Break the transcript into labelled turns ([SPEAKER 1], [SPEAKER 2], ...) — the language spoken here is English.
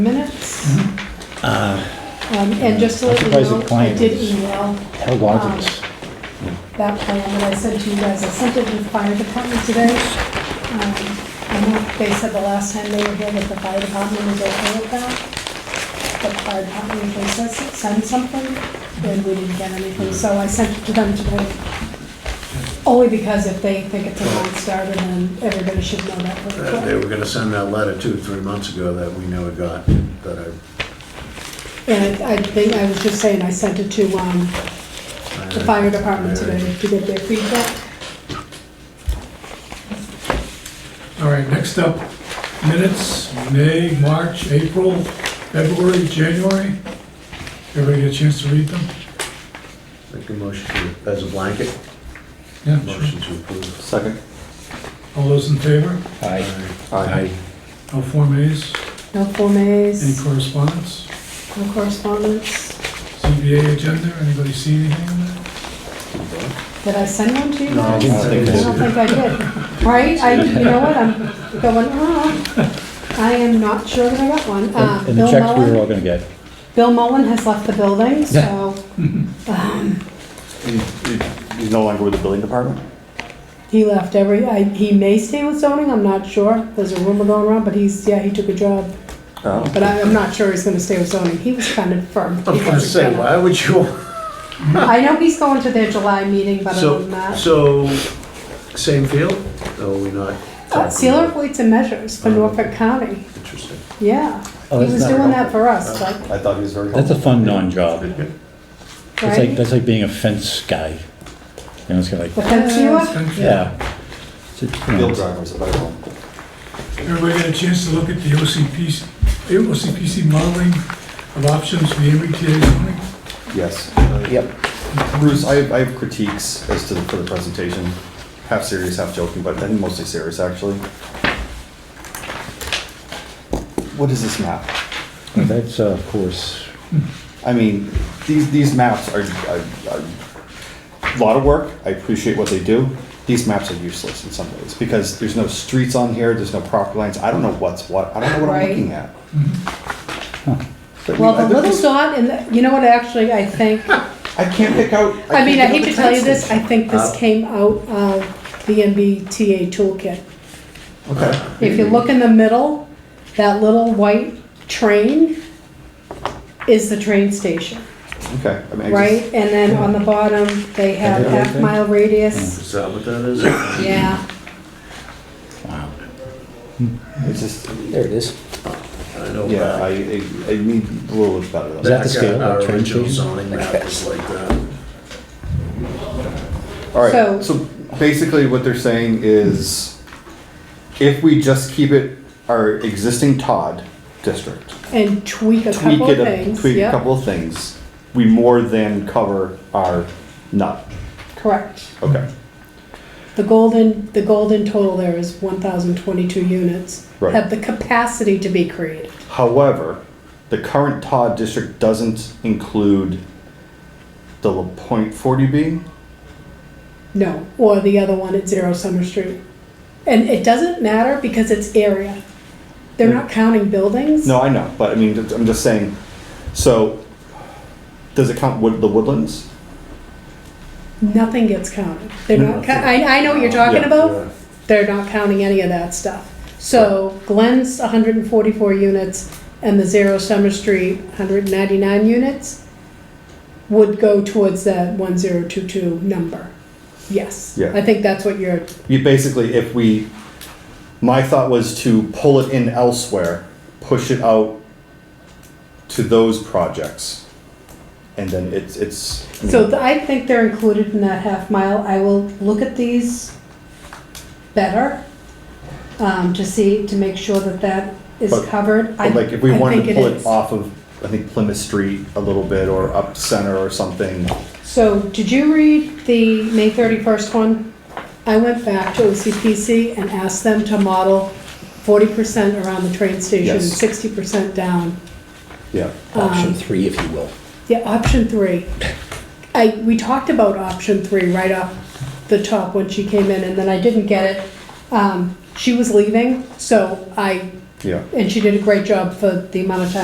[SPEAKER 1] minutes.
[SPEAKER 2] Uh,
[SPEAKER 1] Um, And just to let you know,
[SPEAKER 3] Mm-hmm. I'm surprised the
[SPEAKER 1] I
[SPEAKER 3] client
[SPEAKER 1] did
[SPEAKER 3] is-
[SPEAKER 1] email
[SPEAKER 3] How large is this?
[SPEAKER 1] that plan that I sent to you guys. I sent it to the fire department today. Um, I know they said the last time they were here that the fire department was okay with that. The fire department usually says, send something, and we didn't get anything, so I sent it to them today. Only because if they think it's a non-starter, then everybody should know that pretty
[SPEAKER 4] Uh, They
[SPEAKER 1] quick.
[SPEAKER 4] were gonna send that letter two, three months ago that we never got, that I.
[SPEAKER 1] And I I think, I was just saying, I sent it to, um, the fire department today to get their feedback.
[SPEAKER 5] All right, next up, minutes, May, March, April, February, January. Everybody get a chance to read them?
[SPEAKER 4] Make a motion to, as a blanket,
[SPEAKER 5] Yeah, sure.
[SPEAKER 4] motion to approve.
[SPEAKER 2] Second.
[SPEAKER 5] All those in favor?
[SPEAKER 3] Aye.
[SPEAKER 6] Uh,
[SPEAKER 2] Aye.
[SPEAKER 5] No Form As,
[SPEAKER 1] No Form
[SPEAKER 5] any
[SPEAKER 1] As,
[SPEAKER 5] correspondence?
[SPEAKER 1] no correspondence.
[SPEAKER 5] CBA agenda, anybody see anything on that?
[SPEAKER 1] Did I send one to you
[SPEAKER 4] No, I
[SPEAKER 1] guys?
[SPEAKER 4] didn't think
[SPEAKER 1] I don't
[SPEAKER 4] so.
[SPEAKER 1] think I did. Right, I, you know what, I'm going, oh, I am not sure that I got one. Uh,
[SPEAKER 3] And and the
[SPEAKER 1] Bill
[SPEAKER 3] checks we were
[SPEAKER 1] Mullen,
[SPEAKER 3] all gonna get.
[SPEAKER 1] Bill Mullen has left the building, so, um,
[SPEAKER 2] He's no longer with the building department?
[SPEAKER 1] he left every, I, he may stay with zoning, I'm not sure. There's a rumor going around, but he's, yeah, he took a job,
[SPEAKER 6] Uh,
[SPEAKER 2] Oh.
[SPEAKER 1] but I, I'm not sure he's gonna stay with zoning. He was kind of firm.
[SPEAKER 4] I'm gonna say, why would you?
[SPEAKER 1] I know he's going to their July meeting, but other
[SPEAKER 4] So,
[SPEAKER 1] than that.
[SPEAKER 4] so, same field, or we not?
[SPEAKER 1] Uh, Sealer of Weights and Measures for
[SPEAKER 4] Oh.
[SPEAKER 6] Mm-hmm.
[SPEAKER 1] Norfolk County.
[SPEAKER 4] Interesting.
[SPEAKER 1] Yeah, he
[SPEAKER 3] Oh, that's
[SPEAKER 1] was
[SPEAKER 3] not
[SPEAKER 1] doing
[SPEAKER 3] wrong.
[SPEAKER 1] that for us,
[SPEAKER 6] Uh,
[SPEAKER 1] but,
[SPEAKER 2] I thought he was very.
[SPEAKER 3] That's a fun non-job. That's like,
[SPEAKER 1] right?
[SPEAKER 3] that's like being a fence guy. You know, it's kind of
[SPEAKER 1] The
[SPEAKER 3] like,
[SPEAKER 1] fence viewer?
[SPEAKER 3] yeah. It's a- you know, it's-
[SPEAKER 2] drivers, a better one.
[SPEAKER 5] Everybody get a chance to look at the OCPC, eh, OCPC modeling of options for the MBTA zoning?
[SPEAKER 6] Yes. Yep. Bruce, I have, I have critiques as to, the- for the presentation, half serious, half joking, but I think mostly serious, actually. What is this map?
[SPEAKER 3] That's, uh, of course,
[SPEAKER 6] I mean, these, these maps are, are, are a lot of work. I appreciate what they do. These maps are useless in some ways because there's no streets on here, there's no property lines. I don't know what's what. I don't know what I'm
[SPEAKER 1] Right.
[SPEAKER 6] looking at. But I mean,
[SPEAKER 1] Well,
[SPEAKER 6] I-
[SPEAKER 1] the little dot in the, you know what, actually, I think,
[SPEAKER 6] I can't pick out.
[SPEAKER 1] I mean, I hate
[SPEAKER 6] can't pick out
[SPEAKER 1] to
[SPEAKER 6] the
[SPEAKER 1] tell you
[SPEAKER 6] train
[SPEAKER 1] this, I
[SPEAKER 6] station.
[SPEAKER 1] think this
[SPEAKER 4] Uh.
[SPEAKER 1] came out of the MBTA toolkit.
[SPEAKER 6] Okay.
[SPEAKER 1] If you look in the middle, that little white train is the train station,
[SPEAKER 6] Okay. I mean, I
[SPEAKER 1] right?
[SPEAKER 6] just-
[SPEAKER 1] And then on the bottom, they have
[SPEAKER 3] Yeah.
[SPEAKER 1] half mile radius,
[SPEAKER 4] Is that what that is?
[SPEAKER 6] Mm.
[SPEAKER 1] yeah.
[SPEAKER 3] wow.
[SPEAKER 6] It's just,
[SPEAKER 3] There it is.
[SPEAKER 4] I know
[SPEAKER 6] yeah, I,
[SPEAKER 4] that.
[SPEAKER 6] I, I need a little bit better than
[SPEAKER 3] Is that
[SPEAKER 6] that.
[SPEAKER 3] the scale of
[SPEAKER 4] Our
[SPEAKER 3] train
[SPEAKER 4] original
[SPEAKER 3] station?
[SPEAKER 4] zoning map was like that.
[SPEAKER 6] All
[SPEAKER 1] So-
[SPEAKER 6] right, so basically what they're saying is if we just keep it our existing Todd district,
[SPEAKER 1] And tweak a
[SPEAKER 6] tweak
[SPEAKER 1] couple
[SPEAKER 6] it,
[SPEAKER 1] of
[SPEAKER 6] a-
[SPEAKER 1] things,
[SPEAKER 6] tweak a
[SPEAKER 1] yeah,
[SPEAKER 6] couple of things, we more than cover our nut.
[SPEAKER 1] correct.
[SPEAKER 6] Okay,
[SPEAKER 1] The golden, the golden total there is one thousand twenty-two units.
[SPEAKER 6] Right.
[SPEAKER 1] Have the capacity to be created.
[SPEAKER 6] however, the current Todd district doesn't include the La Pointe forty B.
[SPEAKER 1] No, or the other one at Zero Summer Street. And it doesn't matter because it's area. They're not counting buildings.
[SPEAKER 6] No, I know, but I mean, I'm just saying, so does it count wood, the woodlands?
[SPEAKER 1] Nothing gets counted. They're not, cou- I, I know what you're talking
[SPEAKER 6] Yeah,
[SPEAKER 4] yeah.
[SPEAKER 1] about. They're not counting any of that stuff. So Glenn's hundred and forty-four units and the Zero Summer Street, hundred and ninety-nine units would go towards that one zero two two number. Yes.
[SPEAKER 6] Yeah.
[SPEAKER 1] I think that's what you're,
[SPEAKER 6] You basically, if we, my thought was to pull it in elsewhere, push it out to those projects. And then it's, it's,
[SPEAKER 1] so th- I think they're included in that half mile. I will look at these better um, to see, to make sure that that is
[SPEAKER 6] But-
[SPEAKER 1] covered. I-
[SPEAKER 6] but like if we
[SPEAKER 1] I
[SPEAKER 6] wanted
[SPEAKER 1] think
[SPEAKER 6] to pull
[SPEAKER 1] is.
[SPEAKER 6] it off of, I think Plymouth Street a little bit or up center or something.
[SPEAKER 1] So, did you read the May 31st one? I went back to OCPC and asked them to model 40% around the train station,
[SPEAKER 6] Yes.
[SPEAKER 1] 60% down.
[SPEAKER 6] Yeah,
[SPEAKER 1] Um,
[SPEAKER 3] Option three, if you will.
[SPEAKER 1] Yeah, option three. I, we talked about option three right off the top when she came in, and then I didn't get it. Um, She was leaving, so I
[SPEAKER 6] Yeah.
[SPEAKER 1] And she did a great job for the amount of time